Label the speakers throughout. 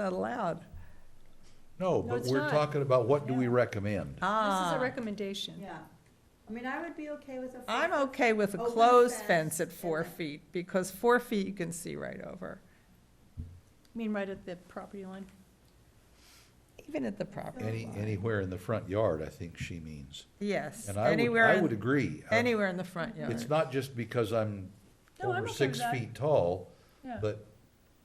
Speaker 1: not allowed.
Speaker 2: No,
Speaker 3: No,
Speaker 2: but
Speaker 3: it's
Speaker 2: we're
Speaker 3: not.
Speaker 2: talking about what do we
Speaker 4: Yeah.
Speaker 2: recommend?
Speaker 3: This is
Speaker 1: Ah.
Speaker 3: a recommendation.
Speaker 4: Yeah, I mean, I would be okay with a.
Speaker 1: I'm
Speaker 4: four-foot-
Speaker 1: okay with a
Speaker 4: Open
Speaker 1: closed
Speaker 4: fence
Speaker 1: fence at four
Speaker 4: and a-
Speaker 1: feet, because four feet you can see right over,
Speaker 3: I mean, right at the property line.
Speaker 1: even at the property
Speaker 2: Any,
Speaker 1: line.
Speaker 2: anywhere in the front yard, I think she means.
Speaker 1: Yes,
Speaker 2: And I would,
Speaker 1: anywhere,
Speaker 2: I would
Speaker 1: in-
Speaker 2: agree. I-
Speaker 1: anywhere in the front
Speaker 2: It's
Speaker 1: yard.
Speaker 2: not just because I'm
Speaker 3: No, I'm
Speaker 2: over
Speaker 3: okay with
Speaker 2: six
Speaker 3: that.
Speaker 2: feet tall,
Speaker 3: Yeah.
Speaker 2: but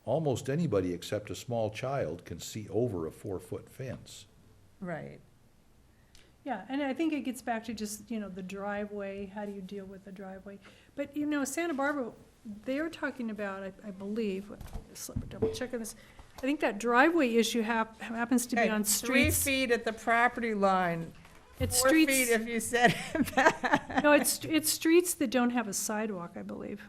Speaker 2: almost anybody except a small child can see over a four-foot fence.
Speaker 1: Right,
Speaker 3: Yeah, and I think it gets back to just, you know, the driveway, how do you deal with the driveway? But, you know, Santa Barbara, they are talking about, I, I believe, just let me double check on this. I think that driveway issue hap, happens to be
Speaker 1: Okay,
Speaker 3: on
Speaker 1: three
Speaker 3: streets.
Speaker 1: feet at the property line,
Speaker 3: It's
Speaker 1: four feet
Speaker 3: streets,
Speaker 1: if you set it back.
Speaker 3: no, it's, it's streets that don't have a sidewalk, I believe.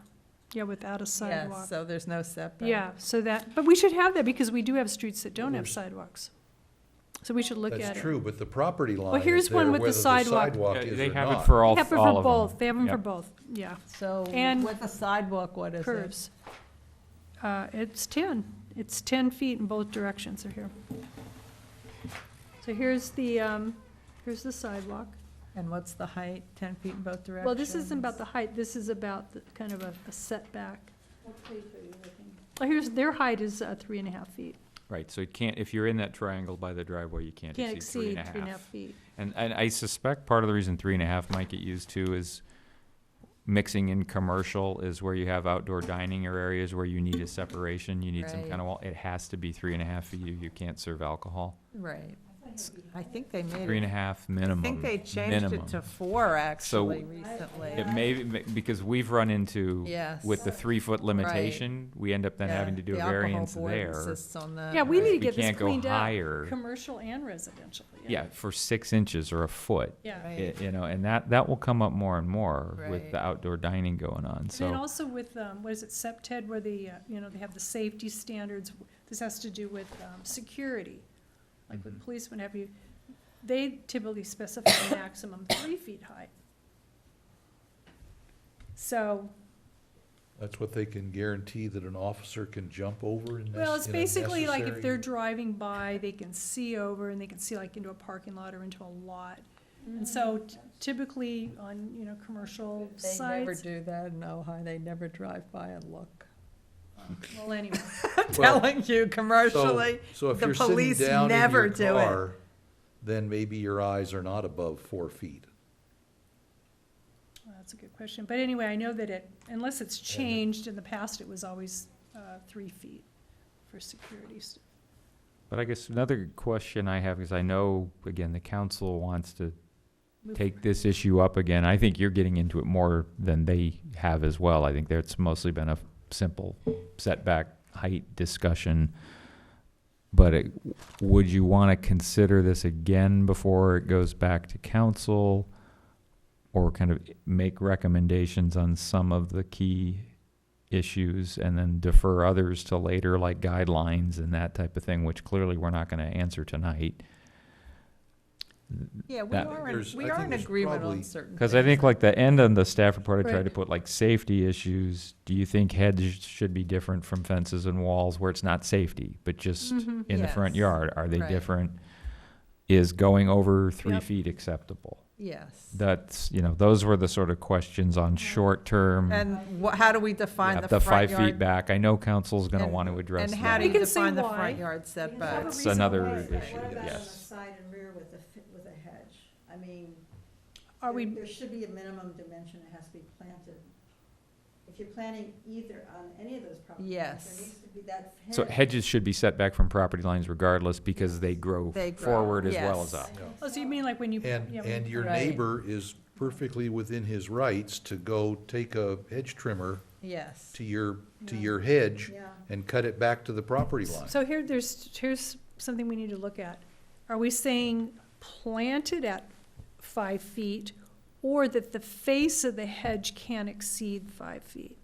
Speaker 3: Yeah, without a
Speaker 1: Yes,
Speaker 3: sidewalk.
Speaker 1: so there's no setback.
Speaker 3: Yeah, so that, but we should have that because we do have streets that don't have
Speaker 2: There's-
Speaker 3: sidewalks. So we should look at it.
Speaker 2: That's true, but the property line is
Speaker 3: here's one
Speaker 2: there
Speaker 3: with the
Speaker 2: whether the
Speaker 3: sidewalk.
Speaker 2: sidewalk
Speaker 5: Yeah,
Speaker 2: is
Speaker 5: They
Speaker 2: or
Speaker 5: have it
Speaker 2: not.
Speaker 5: for all,
Speaker 3: They have it
Speaker 5: all
Speaker 3: for
Speaker 5: of them.
Speaker 3: both, they have them for
Speaker 5: Yep.
Speaker 3: both, yeah.
Speaker 1: So
Speaker 3: And-
Speaker 1: with a sidewalk, what is it?
Speaker 3: curves. Uh, It's 10, it's 10 feet in both directions are here. So here's the, um, here's the sidewalk.
Speaker 1: And what's the height, ten feet in both directions?
Speaker 3: Well, this isn't about the height, this is about the kind of a a setback. Well, Here's, their height is uh, three and a half feet.
Speaker 5: Right, so you can't, if you're in that triangle by the driveway, you can't
Speaker 3: Can't
Speaker 5: exceed three and a half.
Speaker 3: feet.
Speaker 5: And, and I suspect part of the reason three and a half might get used too is mixing in commercial is where you have outdoor dining or areas where you need a separation, you need some
Speaker 1: Right.
Speaker 5: kind of wall. It has to be three and a half feet, you, you can't serve alcohol.
Speaker 1: Right. I think they made it.
Speaker 5: Three and a half
Speaker 1: I
Speaker 5: minimum,
Speaker 1: think they changed
Speaker 5: minimum.
Speaker 1: it to four,
Speaker 5: So-
Speaker 1: actually, recently.
Speaker 5: It may, be- because we've run into
Speaker 1: Yes.
Speaker 5: with the three-foot limitation, we end up then having to do a variance there.
Speaker 3: Yeah, we need to
Speaker 5: We
Speaker 3: get this
Speaker 5: can't go
Speaker 3: cleaned up,
Speaker 5: higher.
Speaker 3: commercial and residential.
Speaker 5: Yeah, for six inches or a foot.
Speaker 3: Yeah.
Speaker 5: i- You know, and that, that will come up more and more
Speaker 1: Right.
Speaker 5: with the outdoor dining going on,
Speaker 3: And then
Speaker 5: so.
Speaker 3: also with, um, what is it, SEPTED, where the, uh, you know, they have the safety standards, this has to do with, um, security. Like with
Speaker 5: Mhm.
Speaker 3: policemen, have you, they typically specify a maximum three feet high. So,
Speaker 2: That's what they can guarantee that an officer can jump over in this.
Speaker 3: well, it's basically like if they're driving by, they can see over and they can see like into a parking lot or into a lot.
Speaker 4: Mm-hmm.
Speaker 3: And so typically on, you know, commercial
Speaker 1: Mm-hmm. They never
Speaker 3: sites,
Speaker 1: do that in Ojai, they never drive by and look.
Speaker 3: well, anyway,
Speaker 1: Telling you commercially, the police never do it.
Speaker 2: Then maybe your eyes are not above four feet.
Speaker 3: Well, That's a good question, but anyway, I know that it, unless it's changed, in the past, it was always uh, three feet for security. s-
Speaker 5: But I guess another question I have, is I know, again, the council wants to
Speaker 3: move
Speaker 5: take this issue up again. I think you're getting into it more than they have as well. I think there's mostly been a f- simple setback height discussion. But it, would you want to consider this again before it goes back to council? Or kind of make recommendations on some of the key issues and then defer others to later, like guidelines and that type of thing, which clearly we're not going to answer tonight.
Speaker 1: Yeah, we
Speaker 5: that-
Speaker 1: are, in-
Speaker 2: There's-
Speaker 1: we
Speaker 2: I
Speaker 1: are
Speaker 2: think
Speaker 1: in
Speaker 2: there's
Speaker 1: agreement on
Speaker 2: probably-
Speaker 1: certain
Speaker 5: Because I think
Speaker 1: things.
Speaker 5: like the end on the staff report, I
Speaker 3: Right.
Speaker 5: tried to put like safety issues. Do you think hedges should be different from fences and walls where it's not safety, but just
Speaker 4: Mm-hmm.
Speaker 3: Mhm.
Speaker 5: in the front
Speaker 1: Mm-hmm. Yes.
Speaker 5: yard? Are they
Speaker 1: Right.
Speaker 5: different? Is going over three
Speaker 3: Yep.
Speaker 5: feet acceptable?
Speaker 1: Yes.
Speaker 5: That's, you know, those were the sort of questions on short term.
Speaker 1: Mm-hmm. And wha- how do we define the
Speaker 5: the
Speaker 1: front
Speaker 5: five feet
Speaker 1: yard?
Speaker 5: back. I know council's gonna
Speaker 1: and-
Speaker 5: want to address
Speaker 1: And how do
Speaker 5: that.
Speaker 1: you
Speaker 3: We can say
Speaker 1: define the
Speaker 3: why.
Speaker 1: front yard setbacks?
Speaker 5: That's
Speaker 3: reason
Speaker 5: another
Speaker 3: why,
Speaker 4: Wait, but
Speaker 5: issue,
Speaker 4: What about on the
Speaker 5: yes.
Speaker 4: side and rear with a, fi- with a hedge? I mean,
Speaker 3: Are
Speaker 4: there-
Speaker 3: we,
Speaker 4: there should be a minimum dimension that has to be planted. If you're planting either on any of those properties, there
Speaker 1: Yes.
Speaker 4: needs to be that hedge.
Speaker 5: So hedges should be set back from property lines regardless because they grow
Speaker 1: They grow,
Speaker 5: forward as well
Speaker 1: yes.
Speaker 5: as up.
Speaker 3: oh, so you mean like when you.
Speaker 2: And,
Speaker 3: yeah, when
Speaker 2: and
Speaker 3: you-
Speaker 2: your
Speaker 1: Right.
Speaker 2: neighbor is perfectly within his rights to go take a hedge trimmer
Speaker 1: Yes.
Speaker 2: to your, to
Speaker 4: Yeah.
Speaker 2: your hedge
Speaker 4: Yeah.
Speaker 2: and cut it back to the property line.
Speaker 3: So here, there's, here's something we need to look at. Are we saying planted at five feet or that the face of the hedge can't exceed five feet?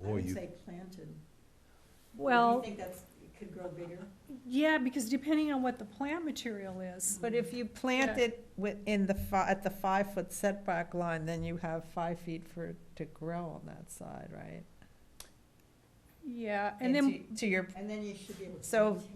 Speaker 4: I
Speaker 2: Boy,
Speaker 4: would
Speaker 2: you,
Speaker 4: say planted. Do you
Speaker 3: Well,
Speaker 4: think that's, it could grow bigger?
Speaker 3: yeah, because depending on what the plant material is.
Speaker 1: But if you plant
Speaker 3: Yeah.
Speaker 1: it within the, fi- at the five-foot setback line, then you have five feet for, it to grow on that side, right?
Speaker 6: yeah, and then.
Speaker 4: to your,
Speaker 3: And then you should be able to.
Speaker 4: So,
Speaker 3: maintain